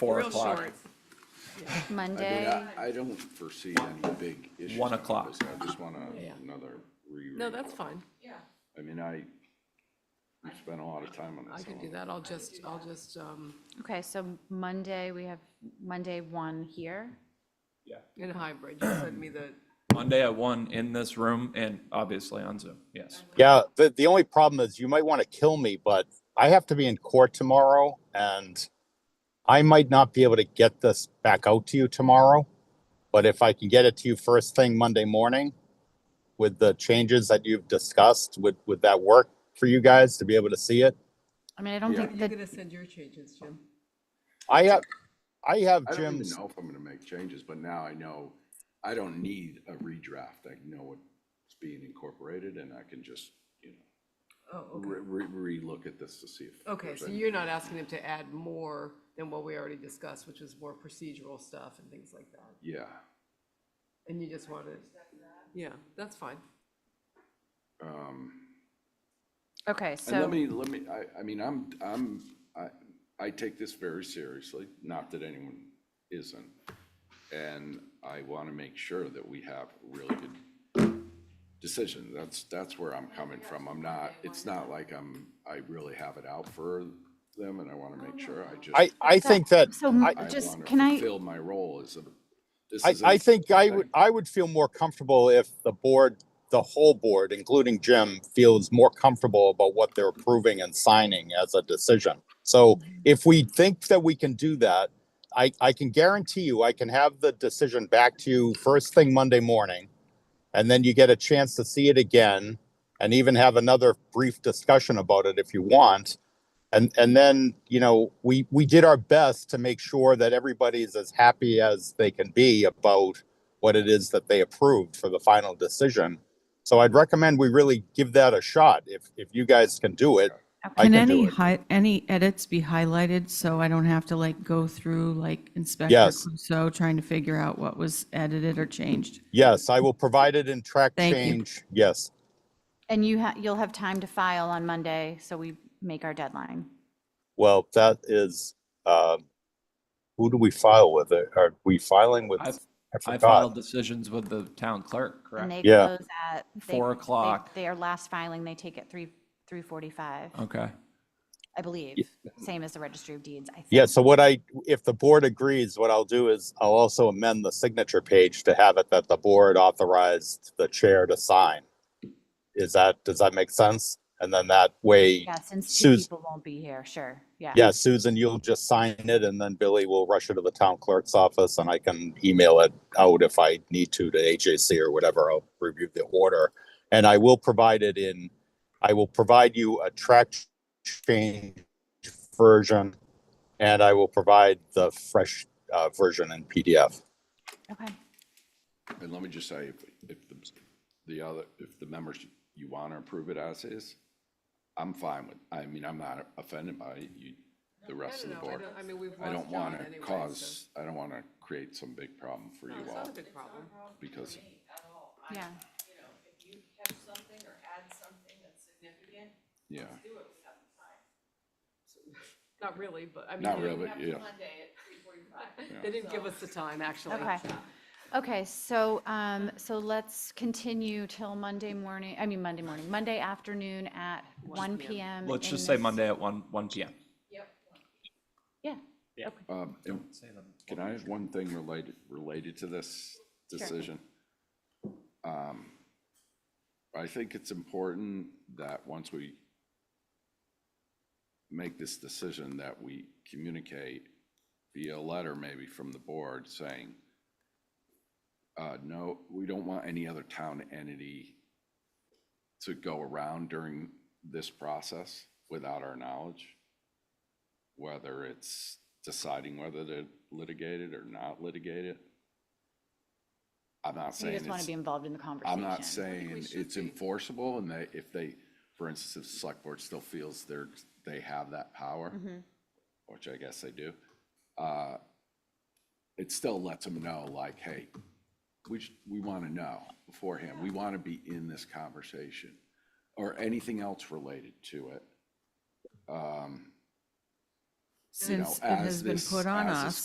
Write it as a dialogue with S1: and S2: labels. S1: four
S2: Real
S1: o'clock.
S2: short.
S3: I mean,
S4: Monday,
S3: I- I don't foresee any big issues.
S1: One
S3: with
S1: o'clock.
S3: this. I just want
S2: Yeah.
S3: another reread.
S2: No, that's fine.
S3: I mean, I, we spent a lot of time on this.
S2: I can
S3: so-
S2: do that. I'll just, I'll just, um,
S4: okay, so Monday, we have Monday one here.
S2: in hybrid, you send me the,
S1: Monday at one in this room and obviously on Zoom, yes.
S5: Yeah, the, the only problem is you might want to kill me, but I have to be in court tomorrow and I might not be able to get this back out to you tomorrow. But if I can get it to you first thing Monday morning with the changes that you've discussed, would, would that work for you guys to be able to see it?
S4: I mean, I don't
S3: Yeah.
S4: think
S2: you're
S4: that,
S2: gonna send your changes, Jim.
S5: I have, I have
S3: I don't even
S5: Jim's,
S3: know if I'm gonna make changes, but now I know, I don't need a redraft. I know what's being incorporated and I can just, you know,
S2: Oh, okay.
S3: re, re, relook at this to see if.
S2: Okay,
S3: there's
S2: so
S3: any-
S2: you're not asking them to add more than what we already discussed, which was more procedural stuff and things like that.
S3: Yeah,
S2: And you just wanted, yeah, that's fine.
S3: um,
S4: okay,
S3: and let
S4: so,
S3: me, let me, I, I mean, I'm, I'm, I, I take this very seriously, not that anyone isn't. And I wanna make sure that we have a really good decision. That's, that's where I'm coming from. I'm not, it's not like I'm, I really have it out for them and I wanna make sure. I just.
S5: I, I think that,
S4: so m-
S5: I-
S3: I
S4: just,
S3: wanna
S4: can I,
S3: Fulfill my role as a, this
S5: I,
S3: is.
S5: I
S3: a-
S5: think I
S3: thing.
S5: would, I would feel more comfortable if the board, the whole board, including Jim, feels more comfortable about what they're approving and signing as a decision. So
S3: Mm-hmm.
S5: if we think that we can do that, I, I can guarantee you, I can have the decision back to you first thing Monday morning. And then you get a chance to see it again and even have another brief discussion about it if you want. And, and then, you know, we, we did our best to make sure that everybody's as happy as they can be about what it is that they approved for the final decision. So I'd recommend we really give that a shot. If, if you guys can do it, I
S6: Can
S5: can do
S6: any
S5: it.
S6: hi, any edits be highlighted so I don't have to like go through like Inspector
S5: Yes.
S6: Clouseau trying to figure out what was edited or changed?
S5: Yes, I will provide it in track
S6: Thank you.
S5: change. Yes.
S4: and you ha, you'll have time to file on Monday, so we make our deadline.
S5: Well, that is, uh, who do we file with? Are we filing with?
S1: I've-
S5: I
S1: I
S5: forgot.
S1: filed decisions with the town clerk,
S4: And
S1: correct?
S4: they
S5: Yeah.
S4: close at. they-
S1: Four
S4: they-
S1: o'clock.
S4: Their last filing, they take at three, three forty-five,
S1: Okay,
S4: I believe, same as the registry of deeds, I think.
S5: Yeah, so what I, if the board agrees, what I'll do is I'll also amend the signature page to have it that the board authorized the chair to sign. Is that, does that make sense? And then that way,
S4: Yeah, since two
S5: Sus-
S4: people won't be here, sure, yeah.
S5: yeah, Susan, you'll just sign it and then Billy will rush it to the town clerk's office and I can email it out if I need to to HAC or whatever. I'll review the order. And I will provide it in, I will provide you a track change version and I will provide the fresh uh, version in PDF.
S4: Okay,
S3: And let me just say, if, if the, the other, if the members, you wanna approve it as is, I'm fine with, I mean, I'm not offended by it, you, the rest of the
S2: No, I
S3: board.
S2: don't, I mean, we've
S3: I
S2: lost
S3: don't
S2: John
S3: wanna
S2: anyway, so.
S3: cause, I don't wanna create some big problem for you
S2: It's
S3: all,
S2: not a big problem.
S3: because,
S4: yeah,
S7: you know, if you catch something or add something that's significant,
S3: yeah,
S7: do it without the time.
S2: Not really, but I mean.
S3: not
S2: they didn't-
S3: really, yeah.
S7: Monday at three forty-five.
S2: They didn't give us the time, actually.
S4: okay. Okay, so, um, so let's continue till Monday morning, I mean, Monday morning, Monday afternoon at one PM.
S1: let's
S4: in
S1: just say
S4: this-
S1: Monday at one, one PM.
S4: Yeah,
S3: Um, and Can I have one thing related, related to this decision? Um, I think it's important that once we make this decision, that we communicate via letter maybe from the board saying, uh, no, we don't want any other town entity to go around during this process without our knowledge whether it's deciding whether to litigate it or not litigate it. I'm not
S4: so you
S3: saying
S4: just want to be
S3: it's,
S4: involved in the conversation.
S3: I'm not saying it's enforceable and they, if they, for instance, if the select board still feels they're, they have that power,
S4: Mhm.
S6: Mm-hmm.
S3: which I guess they do, uh, it still lets them know like, hey, we, sh- we want to know beforehand. We want to be in this conversation or anything else related to it. Um, you know,
S6: since it has
S3: as
S6: been
S3: this-
S6: put on
S3: as this
S6: us.